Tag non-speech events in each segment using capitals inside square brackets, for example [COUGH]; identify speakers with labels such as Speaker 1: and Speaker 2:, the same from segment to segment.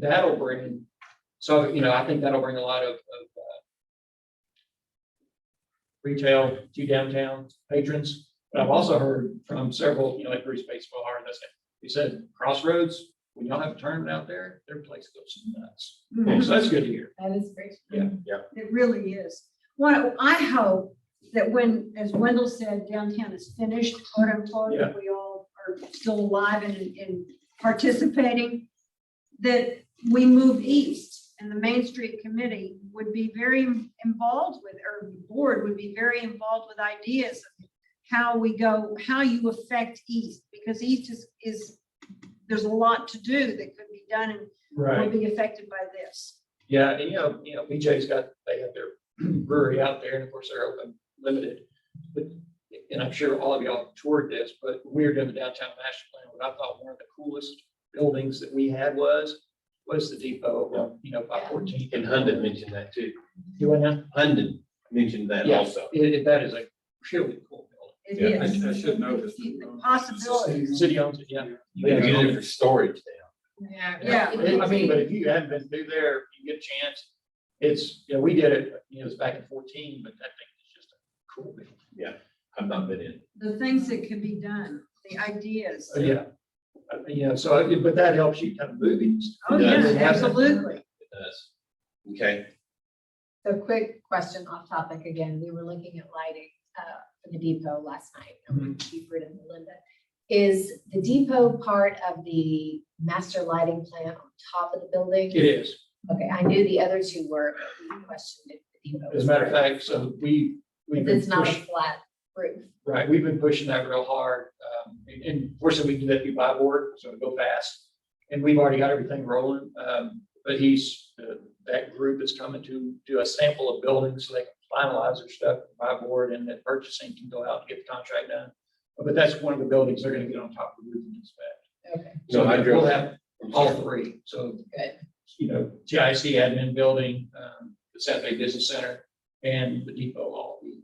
Speaker 1: that'll bring, so, you know, I think that'll bring a lot of, of, uh, retail to downtown patrons. But I've also heard from several, you know, like Bruce Baseball, hard, that's it. He said Crossroads, when y'all have a tournament out there, their place goes nuts. So that's good to hear.
Speaker 2: That is great.
Speaker 1: Yeah,
Speaker 3: yeah.
Speaker 2: Mm-hmm. It really is. Well, I hope that when, as Wendell said, downtown is finished, quote unquote, that we all are still alive and, and participating, that we move east and the Main Street Committee would be very involved with, or the board would be very involved with ideas of how we go, how you affect east, because east is, is, there's a lot to do that could be done and will be affected by this.
Speaker 1: Yeah, and you know, you know, BJ's got, they have their [CLEARS THROAT] brewery out there and of course they're open, limited. But, and I'm sure all of y'all toured this, but we were doing the downtown master plan. What I thought one of the coolest buildings that we had was, was the depot, over, you know, by fourteen.
Speaker 3: And Hunden mentioned that too.
Speaker 1: You went out?
Speaker 3: Hunden mentioned that
Speaker 1: Yeah.
Speaker 3: also.
Speaker 1: It, it- that is a really cool
Speaker 2: It
Speaker 3: Yeah,
Speaker 4: I-
Speaker 2: is.
Speaker 4: I should know this.
Speaker 2: The Possibilities.
Speaker 1: building. City owns it, yeah. You
Speaker 3: They
Speaker 1: guys
Speaker 3: use
Speaker 1: own
Speaker 3: it for storage now.
Speaker 4: Yeah.
Speaker 2: Yeah.
Speaker 1: It- I mean, but if you haven't been through there, you get a chance. It's, you know, we did it, you know, it was back in fourteen, but that thing is just a cool. building.
Speaker 3: I've not been in.
Speaker 2: The things that can be done, the ideas.
Speaker 1: Uh, Yeah, Uh, yeah, so, uh, but that helps you kind of move it.
Speaker 2: Oh,
Speaker 3: Yeah.
Speaker 2: yeah, absolutely.
Speaker 3: It does. Okay,
Speaker 4: So quick question off topic again. We were looking at lighting uh, for the depot last night.
Speaker 1: Mm-hmm.
Speaker 4: and Buford and Melinda. Is the depot part of the master lighting plan on top of the building?
Speaker 1: It is.
Speaker 4: Okay, I knew the other two were, but we questioned if the depot.
Speaker 1: As a matter of fact, so we, we've
Speaker 4: Because
Speaker 1: been
Speaker 4: it's not a
Speaker 1: pushing,
Speaker 4: flat roof.
Speaker 1: right, we've been pushing that real hard. Um, and- And fortunately, we do that through buy board, so it'll go fast. And we've already got everything rolling. Um, But he's, uh, that group is coming to do a sample of buildings so they can finalize their stuff, buy board, and that purchasing can go out and get the contract done. But that's one of the buildings they're gonna get on top of the roof and inspect.
Speaker 4: Okay,
Speaker 3: No, I
Speaker 1: We'll
Speaker 3: drove-
Speaker 1: have all three, so.
Speaker 4: Good.
Speaker 1: You know, GIC admin building, um, the South Bay Business Center and the depot all be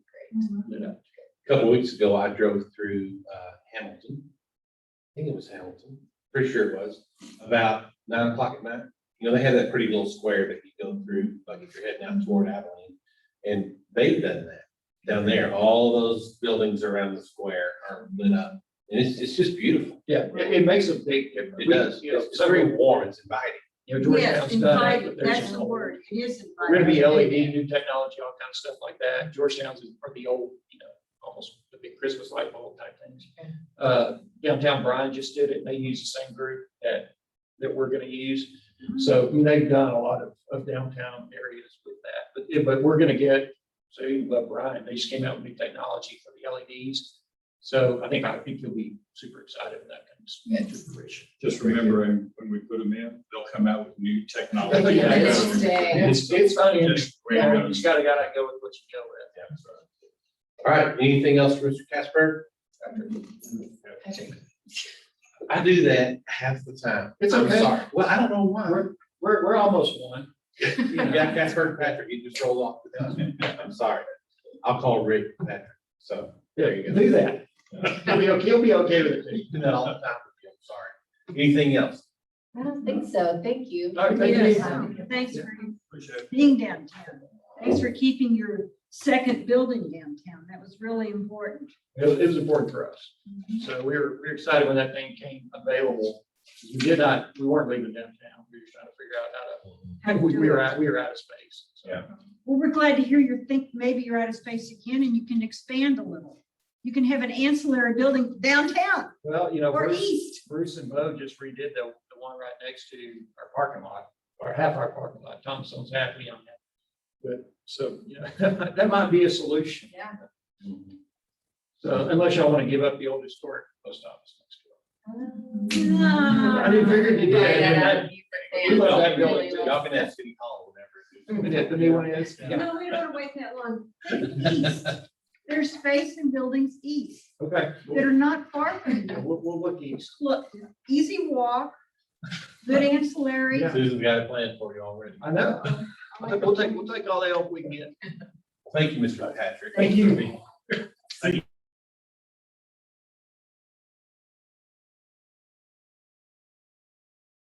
Speaker 1: lit up.
Speaker 3: a couple weeks ago, I drove through uh, Hamilton. I think it was Hamilton, pretty sure it was, about nine o'clock at night. You know, they had that pretty little square that you go through, like if you're heading out toward Abilene. And they've done that down there. All those buildings around the square are lit up. And it's, it's just beautiful.
Speaker 1: Yeah, it, it makes a big difference.
Speaker 3: It does.
Speaker 1: You know,
Speaker 3: It's very
Speaker 1: several-
Speaker 3: warm. It's inviting.
Speaker 1: you know,
Speaker 2: Yes,
Speaker 1: Georgetown's done it,
Speaker 2: inviting,
Speaker 1: but there's
Speaker 2: that's
Speaker 1: some-
Speaker 2: the word. It is
Speaker 1: We're gonna
Speaker 2: inviting.
Speaker 1: be E LED, new technology, all kind of stuff like that. Georgetown's is for the old, you know, almost the big Christmas light bulb type things.
Speaker 4: Okay.
Speaker 1: Uh, downtown Bryan just did it. and They use the same group that, that we're gonna use. So I mean, they've done a lot of, of downtown areas with that, but, yeah, but we're gonna get, so you love Brian, they just came out with new technology for the LEDs. So I think, I think you'll be super excited when that comes to fruition.
Speaker 5: Just remembering when we put them in, they'll come out with new technology.
Speaker 1: Yeah.
Speaker 4: Interesting.
Speaker 1: It's, it's funny, you
Speaker 5: Just-
Speaker 1: just gotta, gotta go with what you go with.
Speaker 3: All right, anything else, Mr. Casper? I do that half the time.
Speaker 1: It's
Speaker 3: I'm
Speaker 1: okay.
Speaker 3: [LAUGHS] sorry. Well, I don't know why.
Speaker 1: We're, we're almost one. You know.
Speaker 3: Yeah, Casper and Patrick, you just rolled off the tongue. I'm sorry. I'll call Rick Patrick, so.
Speaker 1: There you go. Do that. [LAUGHS] He'll be, okay- he'll be okay with it.
Speaker 3: You do that all the time with you, I'm sorry. Anything else?
Speaker 4: I don't think so. Thank you.
Speaker 1: All right, thank you.
Speaker 2: Yes. Thanks for being downtown. Thanks for keeping your second building downtown. That was really important.
Speaker 1: It was, it was important for us. So we were, we were excited when that thing came available. We did not, we weren't leaving downtown. We were just trying to figure out how
Speaker 2: How to
Speaker 1: to, we
Speaker 2: do
Speaker 1: we were
Speaker 2: it.
Speaker 1: out, we were out of space. So,
Speaker 5: Yeah.
Speaker 2: Well, we're glad to hear you think maybe you're out of space again and you can expand a little. You can have an ancillary building downtown
Speaker 1: Well, you know,
Speaker 2: or
Speaker 1: Bruce,
Speaker 2: east.
Speaker 1: Bruce and Bo just redid the, the one right next to our parking lot, or half our parking lot. Thompson's happy on that. But, so, you know, [LAUGHS] that might be a solution. So unless y'all want to give up the old historic post office next door. I didn't figure you did.
Speaker 4: Yeah.
Speaker 1: We love that building.
Speaker 3: Y'all can ask City Hall whenever.
Speaker 1: And if the new one is, yeah,
Speaker 4: No, we don't want to wait that long.
Speaker 2: Think east. There's space and buildings east
Speaker 1: okay.
Speaker 2: that
Speaker 1: We'll,
Speaker 2: are not far from you.
Speaker 1: we'll- we'll look east.
Speaker 2: Look, easy walk, good ancillary.
Speaker 1: Yeah.
Speaker 3: Susan's got a plan for you already.
Speaker 1: I know. We'll we'll take, we'll take all the help we can get.
Speaker 3: Thank you, Mr. Patrick.
Speaker 1: Thank you.
Speaker 3: Thank